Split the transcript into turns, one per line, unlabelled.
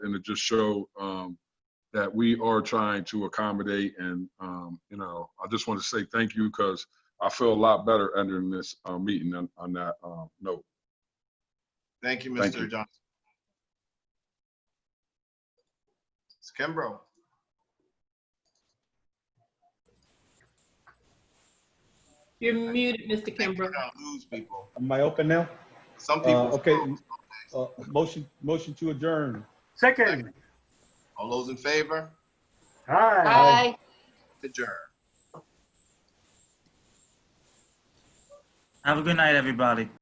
something to just show um, that we are trying to accommodate and, um, you know, I just want to say thank you because I feel a lot better entering this uh, meeting on on that uh, note.
Thank you,
Thank you.
Mr. Johnson. It's Kimbrough.
You're muted, Mr.
Think we're
Kimbrough.
gonna Lose people.
Am I open now?
Some
Uh,
people.
okay, uh, motion, motion to adjourn.
Second.
All those in favor,
Hi.
Aye.
Aye.
adjourn.
Have a good night, everybody.